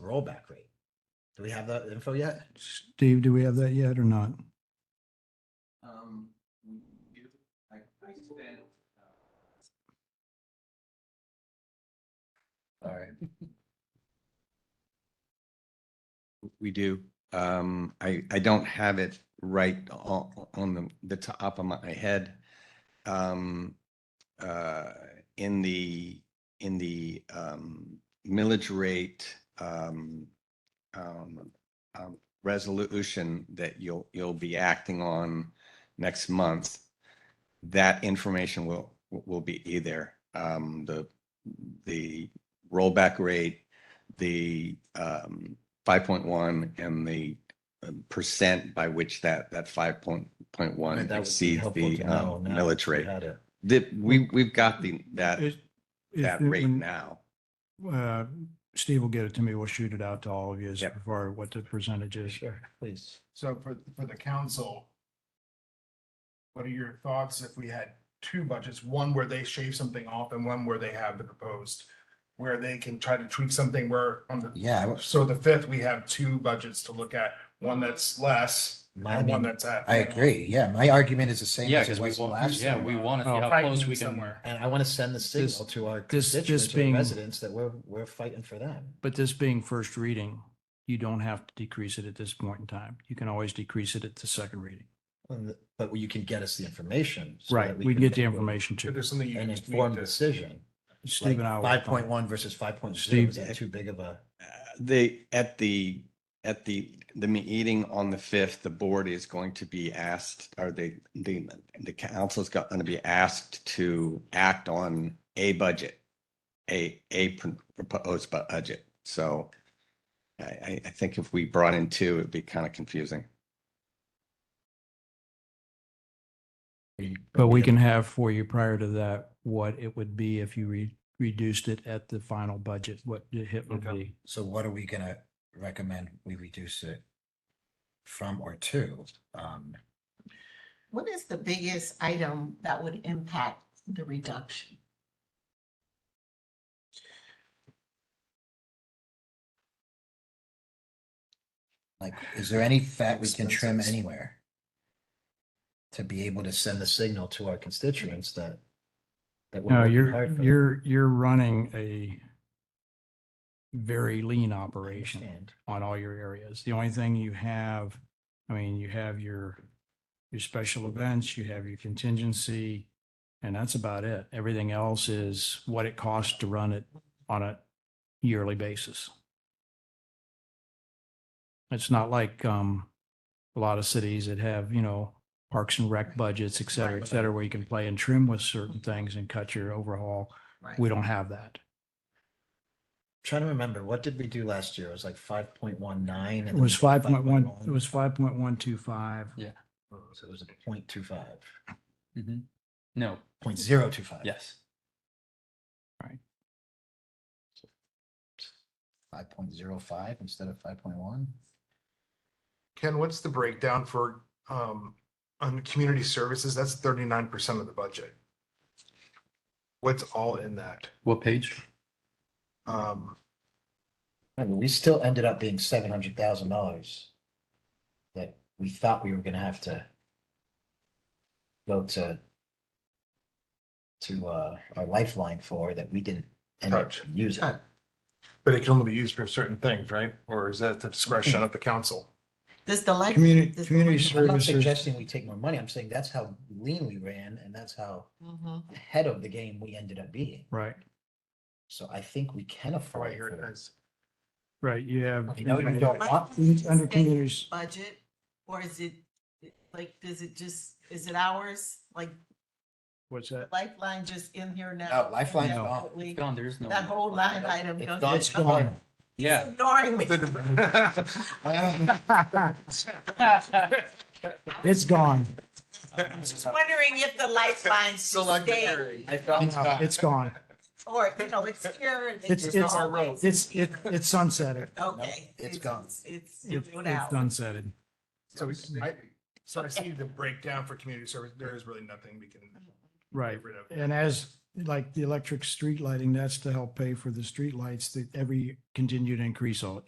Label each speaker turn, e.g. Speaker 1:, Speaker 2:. Speaker 1: rollback rate. Do we have that info yet?
Speaker 2: Steve, do we have that yet or not?
Speaker 3: Um, we do, I, I spent. uh, Sorry. We do, um, I, I don't have it right on, on the, the top of my head. Um, uh, in the, in the, um, millage rate, um, um, um, resolution that you'll, you'll be acting on, next month, that information will, will be either um, the, the rollback rate, the um, 5.1 and the um, percent by which that, that
Speaker 1: Right,
Speaker 3: 5.1
Speaker 1: that would be
Speaker 3: exceeds
Speaker 1: helpful
Speaker 3: the
Speaker 1: to know
Speaker 3: um,
Speaker 1: now if
Speaker 3: millage
Speaker 1: we
Speaker 3: rate.
Speaker 1: had it.
Speaker 3: The- we, we've got the, that,
Speaker 2: Is- is
Speaker 3: that
Speaker 2: it
Speaker 3: rate
Speaker 2: when-
Speaker 3: now.
Speaker 2: uh, Steve will get it to me. We'll shoot it out to all of you as
Speaker 3: Yep.
Speaker 2: far what the percentage is.
Speaker 1: Sure, please.
Speaker 4: So for, for the council, what are your thoughts if we had two budgets, one where they shave something off and one where they have the proposed, where they can try to tweak something where on the,
Speaker 1: Yeah, I was-
Speaker 4: so the fifth, we have two budgets to look at, one that's less
Speaker 1: my,
Speaker 4: and one
Speaker 1: mean,
Speaker 4: that's at.
Speaker 1: I agree. Yeah, my argument is the same
Speaker 5: Yeah,
Speaker 1: as it
Speaker 5: because we
Speaker 1: was
Speaker 5: want,
Speaker 1: last time.
Speaker 5: yeah, we want to see
Speaker 2: Oh.
Speaker 5: how close we
Speaker 4: Tightening
Speaker 5: can.
Speaker 4: somewhere.
Speaker 1: And I want to send the
Speaker 2: This-
Speaker 1: signal to our
Speaker 2: this- this
Speaker 1: constituents, our
Speaker 2: being-
Speaker 1: residents that we're, we're fighting for them.
Speaker 2: But this being first reading, you don't have to decrease it at this point in time. You can always decrease it at the second reading.
Speaker 1: And- But you can get us the information. so
Speaker 2: Right,
Speaker 1: that
Speaker 2: we
Speaker 1: can
Speaker 2: get the
Speaker 1: make
Speaker 2: information
Speaker 4: If
Speaker 2: to
Speaker 4: there's something you
Speaker 1: An
Speaker 4: can just make
Speaker 1: informed
Speaker 4: this,
Speaker 1: decision.
Speaker 2: Steve and I. will-
Speaker 1: Five point one versus five point zero,
Speaker 2: Steve- eh,
Speaker 1: is that too big of a?
Speaker 5: Uh,
Speaker 3: The, at the, at the, the meeting on the fifth, the board is going to be asked, or the, the, the council's got, going to be asked to act on a budget. A, a pr- proposed bu- budget, so I, I, I think if we brought in two, it'd be kind of confusing.
Speaker 2: But we can have for you prior to that, what it would be if you re- reduced it at the final budget, what the hit would
Speaker 4: Okay.
Speaker 2: be.
Speaker 1: So what are we gonna recommend we reduce it from or to? Um,
Speaker 6: What is the biggest item that would impact the reduction?
Speaker 7: Like, is there any fat we can trim
Speaker 1: Expenses.
Speaker 7: anywhere?
Speaker 1: to be able to send the signal to our constituents that. that we're
Speaker 2: No,
Speaker 1: working
Speaker 2: you're,
Speaker 1: hard for them.
Speaker 2: you're, you're running a very lean
Speaker 1: I
Speaker 2: operation.
Speaker 1: understand.
Speaker 2: on all your areas. The only thing you have, I mean, you have your, your special events, you have your contingency, and that's about it. Everything else is what it costs to run it on a yearly basis. It's not like, um, a lot of cities that have, you know, parks and rec budgets, et cetera, et
Speaker 6: Right.
Speaker 2: cetera, where you can play and trim with certain things and cut your overhaul.
Speaker 6: Right.
Speaker 2: We don't have that.
Speaker 1: Trying to remember, what did we do last year? It was like five point one nine.
Speaker 2: It was five point one, it was five point one two five.
Speaker 1: So it was a point two five,
Speaker 5: Mhm. No,
Speaker 1: point zero two five.
Speaker 5: yes.
Speaker 1: Five point zero five instead of five point one.
Speaker 4: Ken, what's the breakdown for, um, on community services? That's thirty-nine percent of the budget. What's all in that?
Speaker 5: What page?
Speaker 4: Um,
Speaker 1: I mean, we still ended up being seven hundred thousand dollars. That we thought we were gonna have to. Go to. To uh, our lifeline for that we didn't end up
Speaker 4: Touch.
Speaker 1: using.
Speaker 4: but it can only be used for certain things, right? Or is that the discretion of the council?
Speaker 6: Does the life?
Speaker 2: Community,
Speaker 6: does the
Speaker 2: community
Speaker 6: life-
Speaker 1: I'm not
Speaker 2: services.
Speaker 1: suggesting we take more money. I'm saying that's how lean we ran and that's how
Speaker 6: Mhm.
Speaker 1: ahead of the game we ended up being.
Speaker 2: Right,
Speaker 1: So I think we can
Speaker 4: Oh, I
Speaker 1: afford.
Speaker 4: hear
Speaker 1: for
Speaker 4: it
Speaker 1: that.
Speaker 4: is.
Speaker 2: right. You have.
Speaker 1: I know you don't want,
Speaker 2: Under- Under communities,
Speaker 6: Budget, or is it, like, does it just, is it ours? Like
Speaker 2: what's that?
Speaker 6: Lifeline just in here now?
Speaker 7: No, Lifeline's
Speaker 2: No.
Speaker 7: gone.
Speaker 6: Totally.
Speaker 5: Gone, there's no.
Speaker 6: That whole line item.
Speaker 1: It's
Speaker 6: don't
Speaker 1: gone,
Speaker 6: get-
Speaker 1: it's gone.
Speaker 5: Yeah.
Speaker 6: Ignoring me.
Speaker 2: It's gone.
Speaker 6: Just wondering if the lifeline stayed,
Speaker 2: No, It's gone.
Speaker 6: or, you know, it's here. and
Speaker 2: It's,
Speaker 6: just
Speaker 2: it's,
Speaker 6: always-
Speaker 2: it's, it- it's sunsetted.
Speaker 6: Okay.
Speaker 7: it's gone.
Speaker 6: It's,
Speaker 2: It- It's
Speaker 6: it's moved out.
Speaker 2: sunsetted.
Speaker 4: So we- I, so I see the breakdown for community service, there is really nothing we can.
Speaker 2: Right.
Speaker 4: get rid of.
Speaker 2: And as, like the electric street lighting, that's to help pay for the street lights that every continued increase all,